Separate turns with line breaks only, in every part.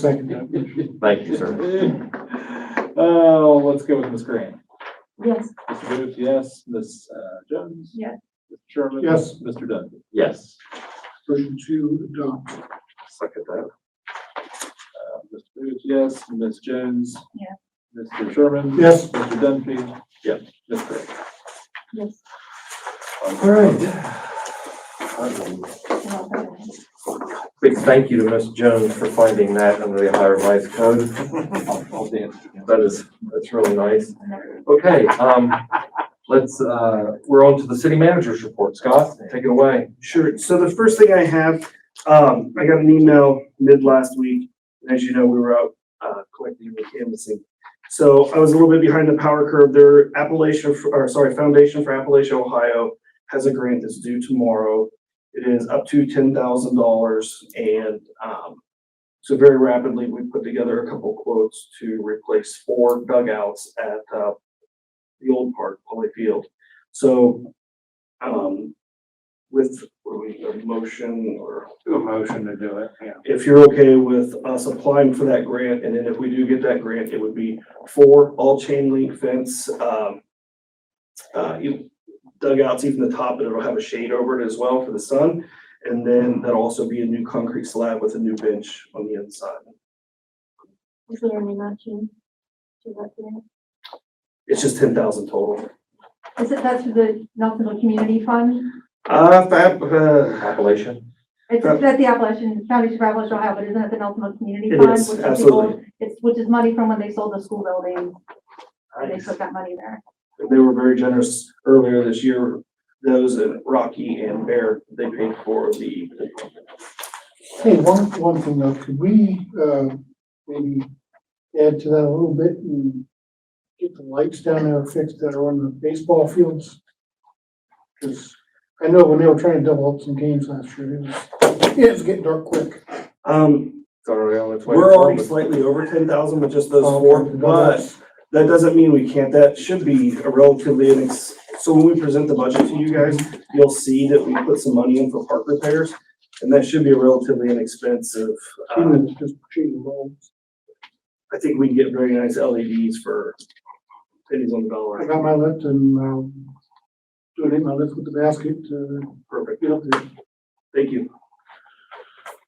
Second that motion.
Thank you, sir.
Oh, let's go with Ms. Green.
Yes.
Mr. Booth, yes. Ms. uh, Jones?
Yes.
Mr. Sherman?
Yes.
Mr. Duffy?
Yes.
Motion to adopt.
Second that.
Uh, Mr. Booth, yes. Ms. Jones?
Yes.
Mr. Sherman?
Yes.
Mr. Dunphy?
Yes.
Ms. Green?
Yes.
All right.
Big thank you to Ms. Jones for finding that under the Ohio Revised Code.
I'll- I'll dance.
That is, that's really nice. Okay, um, let's, uh, we're on to the city manager's report. Scott, take it away.
Sure. So the first thing I have, um, I got an email mid last week. and As you know, we were out, uh, collecting and canvassing. So I was a little bit behind the power curve there. Appalachia, for- or sorry, Foundation for Appalachia, Ohio has a grant that's due tomorrow. It is up to ten thousand dollars and, um, so very rapidly, we put together a couple quotes to replace four dugouts at, uh, the old park, Poly Field. So, um, with what do we, a motion or
Do a motion to do it, yeah.
if you're okay with us applying for that grant, and then if we do get that grant, it would be for all chain link fence, um, uh, you- dugouts, even the top, and it'll have a shade over it as well for the sun. And then that'll also be a new concrete slab with a new bench on the inside.
Is there any matching to that grant?
It's just ten thousand total.
Is it, that's the Nelsonville Community Fund?
Uh, fab, uh,
Appellation?
It's,
Uh,
it's at the Appalachian, Foundation for Appalachia, Ohio, but isn't it the Nelsonville Community
It
Fund?
is,
which people-
absolutely.
It's, which is money from when they sold the school building, and they
nice.
took that money there.
They were very generous earlier this year. Those in Rocky and Bear, they paid for the
Hey, one, one thing though, could we, uh, maybe add to that a little bit and get the lights down there fixed that are on the baseball fields? Cause I know when they were trying to double up some games last year, it was, it was getting dark quick.
Um,
It's already on its way.
we're already slightly over ten thousand with just those
Oh,
four, but that doesn't mean we can't, that should be a relatively, inex- so when we present the budget to you guys, you'll see that we put some money in for park repairs, and that should be a relatively inexpensive, um,
Even if it's uh, just shooting balls.
I think we can get very nice LEDs for pennies on the dollar.
I got my lift and, um, doing my lift with the basket to
Perfect,
get up there.
thank you.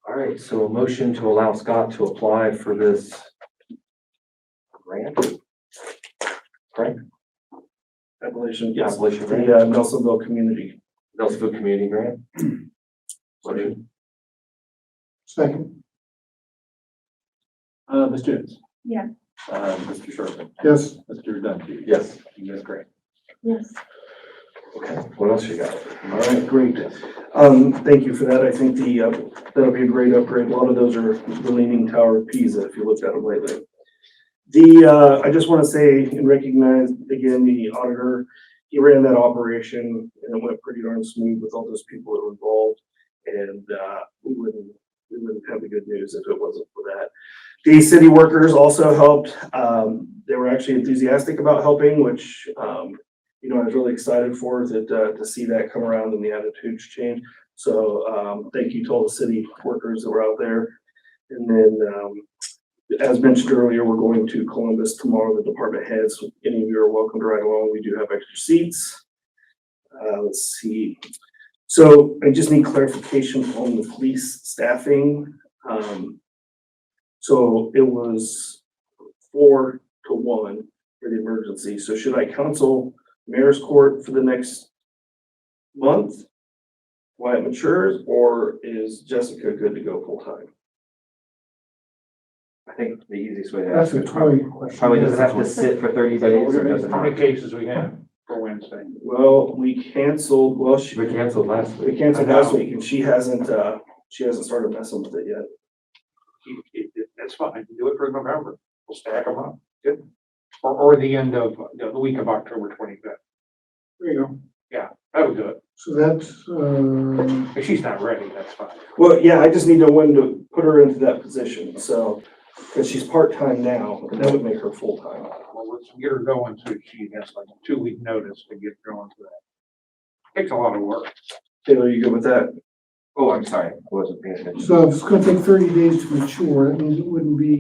All right, so a motion to allow Scott to apply for this grant?
Appalachian, yes,
Appalachian
the
grant?
uh, Nelsonville community.
Nelsonville Community Grant? Motion?
Second,
Uh, Ms. Jones?
Yeah.
Uh, Mr. Sherman?
yes,
Mr. Dunphy?
Yes.
Ms. Green?
Yes.
Okay, what else you got?
All right, great. Um, thank you for that. I think the, uh, that'll be a great upgrade. A lot of those are the leaning tower of Pisa, if you looked at them lately. The, uh, I just want to say and recognize again the auditor. He ran that operation and it went pretty darn smooth with all those people that were involved. And, uh, we wouldn't, we wouldn't have the good news if it wasn't for that. The city workers also helped. Um, they were actually enthusiastic about helping, which, um, you know, I was really excited for that, uh, to see that come around and the attitudes change. So, um, thank you to all the city workers that were out there. And then, um, as mentioned earlier, we're going to Columbus tomorrow, the department heads. Any of you are welcome to ride along. We do have extra seats. Uh, let's see. So I just need clarification on the police staffing. Um, so it was four to one for the emergency. So should I counsel mayor's court for the next month while it matures, or is Jessica good to go full time?
I think the easiest way to
that's
ask
a
it.
probably a question.
Probably doesn't have to sit for thirty days or doesn't.
How many cases we have for Wednesday?
Well, we canceled, well, she,
We canceled last
we
week.
canceled last week and she hasn't, uh, she hasn't started messing with it yet.
you- it- it- that's fine, I can do it for November, we'll stack them up, good. Or, or the end of, the the week of October twenty-fifth,
There you go.
that'll do it,
So that's, uh,
if she's not ready, that's fine.
Well, yeah, I just need to when to put her into that position, so, because she's part-time now, and that would make her full-time.
Well, let's get her going, so she has like a two-week notice to get going to that. Takes a lot of work,
Taylor, you good with that?
Oh, I'm sorry, I wasn't paying attention.
So it's gonna take thirty days to mature, that means it wouldn't be